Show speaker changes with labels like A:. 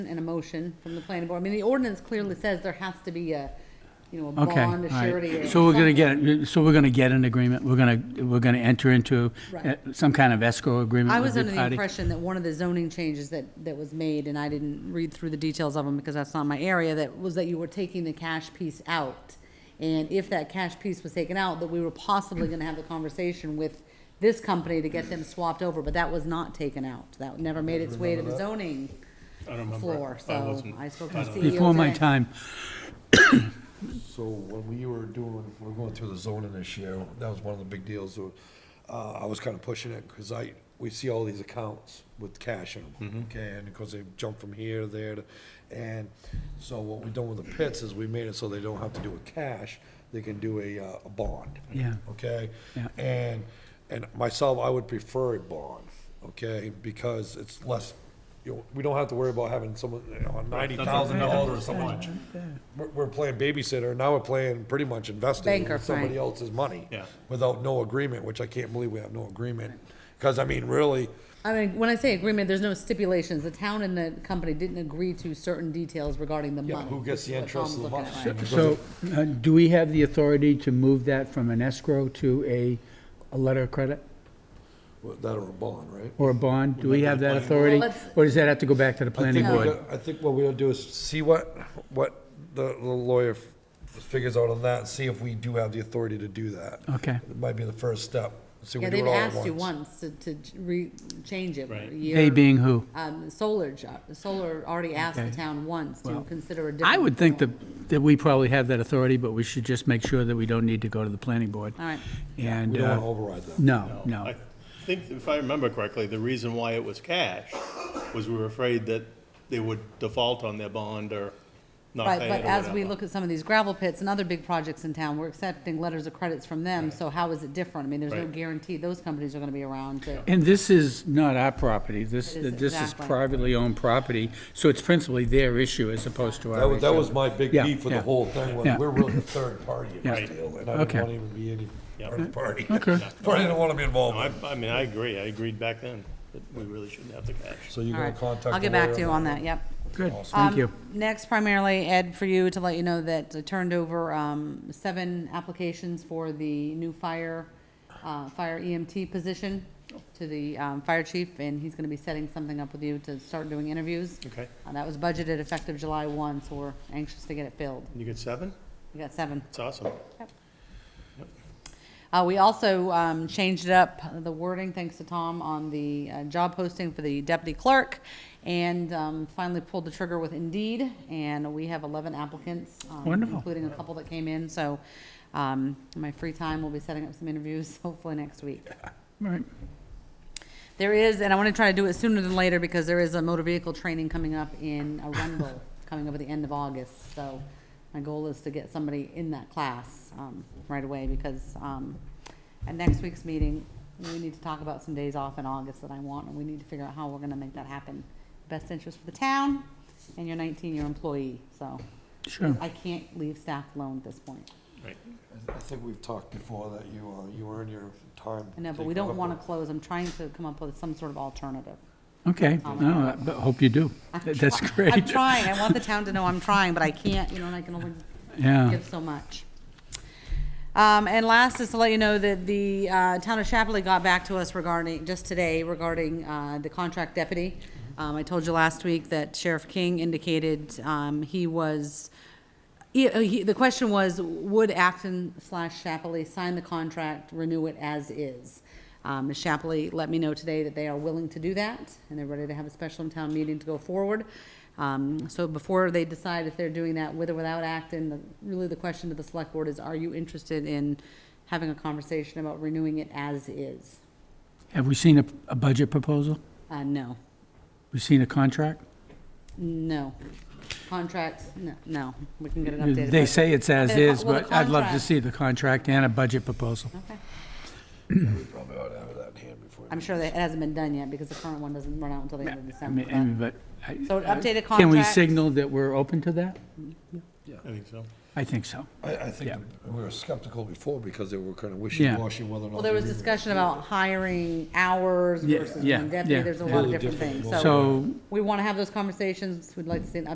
A: and a motion from the planning board. I mean, the ordinance clearly says there has to be a, you know, a
B: Okay, all
A: bond, a surety. or
B: right. So we're gonna
A: something.
B: get, so we're gonna get an agreement, we're gonna, we're gonna enter into
A: Right.
B: uh, some kind of escrow agreement
A: I
B: with
A: was
B: the
A: under the
B: party?
A: impression that one of the zoning changes that, that was made, and I didn't read through the details of them because that's not my area, that was that you were taking the cash piece out. And if that cash piece was taken out, that we were possibly gonna have the conversation with this company to get them swapped over, but that was not taken out. That never made its way to the zoning
C: I don't remember.
A: floor,
C: I
A: so
C: wasn't-
A: I spoke to the
C: don't-
A: CEO
B: Before my
A: today.
B: time,
D: So when we were doing, we we're going through the zoning this year, that was one of the big deals. uh, I was kind of pushing it because I, we see all these accounts with cash in them, okay? And because they jump from here, there, to- and so what we done with the pits is we made it so they don't have to do a cash, they can do a, uh, a bond.
B: Yeah.
D: Okay?
B: Yeah.
D: And, and myself, I would prefer a bond, okay? Because it's less, you know, we don't have to worry about having someone, you know, ninety thousand dollars or someone we're, we're playing babysitter, now we're playing pretty much investing
A: Banker,
D: with somebody
A: right.
D: else's money.
C: Yeah.
D: Without no agreement, which I can't believe we have no agreement, because I mean, really,
A: I mean, when I say agreement, there's no stipulations. The town and the company didn't agree to certain details regarding the
D: yeah,
A: money.
D: who gets the
A: which is what
D: interest of the
A: Tom's
D: money?
A: looking at, right?
B: so uh, do we have the authority to move that from an escrow to a, a letter of credit
D: Well, That or a bond, right?
B: or a bond? Do we have that authority?
A: Well, let's-
B: Or does that have to go back to the
D: I
B: planning
D: think we
B: board?
D: got- I think what we will do is see what, what the, the lawyer f- figures out on that, and see if we do have the authority to do that.
B: Okay.
D: It might be the first step, see if
A: Yeah,
D: we do it
A: they've
D: all at
A: asked
D: once.
A: you once to, to re, change it.
C: Right.
A: You're-
B: They being who?
A: Um, Solar, jo- Solar already asked the
B: Okay.
A: town once to
B: Well,
A: consider a different.
B: I would think
A: form.
B: that, that we probably have that authority, but we should just make sure that we don't need to go to the planning board.
A: All right.
B: And,
D: We don't wanna
B: uh,
D: override that.
B: no,
C: I
B: no.
C: think, if I remember correctly, the reason why it was cash was we were afraid that they would default on their bond or not
A: Right,
C: pay it or
A: but as we
C: whatever.
A: look at some of these gravel pits and other big projects in town, we're accepting letters of credits from them, so how is it different? I mean, there's no
C: Right.
A: guarantee those companies are gonna be around to.
B: And this is not our property, this,
A: It is
B: this is
A: exactly.
B: privately owned property, so it's principally their issue as opposed to
D: That
B: our
D: was, that
B: issue.
D: was my big
B: Yeah,
D: beef with the
B: yeah,
D: whole thing, was
B: yeah.
D: we're really the third party in
B: Yeah.
D: this deal, and I
B: Okay.
D: don't wanna even be any part of the party.
B: Okay.
D: Party I don't wanna be
C: No,
D: involved with.
C: I, I mean, I agree, I agreed back then, that we really shouldn't have the cash.
D: So you're
A: All
D: gonna
A: right,
D: contact
A: I'll
D: the
A: get back
D: lawyer
A: to you on that, yep.
B: Good, thank
A: Um,
B: you.
A: Next, primarily, Ed, for you to let you know that I turned over um, seven applications for the new fire, uh, fire EMT position to the um, fire chief, and he's going to be setting something up with you to start doing interviews.
C: Okay.
A: Uh, That was budgeted effective July 1, so we're anxious to get it filled.
C: You get seven?
A: We got seven.
C: It's awesome.
A: Uh, we also, um, changed it up, the wording, thanks to Tom, on the, uh, job posting for the deputy clerk. And, um, finally pulled the trigger with Indeed, and we have eleven applicants. um,
B: Wonderful.
A: Including a couple that came in, so, um, in my free time, we'll be setting up some interviews hopefully next week.
B: Right.
A: There is, and I want to try to do it sooner than later because there is a motor vehicle training coming up in Arundel, coming up at the end of August. So my goal is to get somebody in that class um, right away because um, at next week's meeting, we need to talk about some days off in August that I want, and we need to figure out how we're going to make that happen. Best interest for the town and your 19-year employee, so
B: Sure.
A: I can't leave staff alone at this point.
C: Right.
D: I think we've talked before that you, uh, you earn your time.
A: I know, but we don't want to close. I'm trying to come up with some sort of alternative.
B: Okay, no, I- but hope you do. That- That's great.
A: I'm trying. I want the town to know I'm trying, but I can't, you know, and I can only
B: Yeah,
A: give so much. Um, and last is to let you know that the, uh, town of Chapley got back to us regarding, just today, regarding, uh, the contract deputy. Um, I told you last week that Sheriff King indicated, um, he was, he- uh, he, the question was, would Acton slash Chapley sign the contract, renew it as is? Um, Ms. Shapley let me know today that they are willing to do that, and they're ready to have a special town meeting to go forward. Um, so before they decide if they're doing that with or without Acton, the, really the question to the select board is, are you interested in having a conversation about renewing it as is?
B: have we seen a, a budget proposal?
A: Uh, no,
B: We've seen a contract?
A: no. Contracts, no, no, we can get an updated.
B: They
A: budget. Uh,
B: say it's as
A: Well, the
B: is, but I'd love to
A: contract-
B: see the contract and a budget proposal.
A: Okay.
D: We probably ought to have that in hand before.
A: I'm sure that it hasn't been done yet, because the current one doesn't run out until the end of
B: I
A: December.
B: mean,
A: but-
B: I mean, but. I-
A: So an updated
B: Can we
A: contract?
B: signal that we're open to that?
C: I think so.
B: I think so.
D: I, I think
B: Yeah.
D: we were skeptical before because they were kind of wishy-washy whether or not.
A: Well, there was
D: they were-
A: discussion about hiring hours
B: Yeah,
A: versus
B: yeah,
A: one deputy,
B: yeah,
A: there's a
B: yeah.
A: lot of
D: Totally
A: different
D: different
A: things,
D: roles.
A: so
B: So
A: we want to have those conversations, we'd like to see an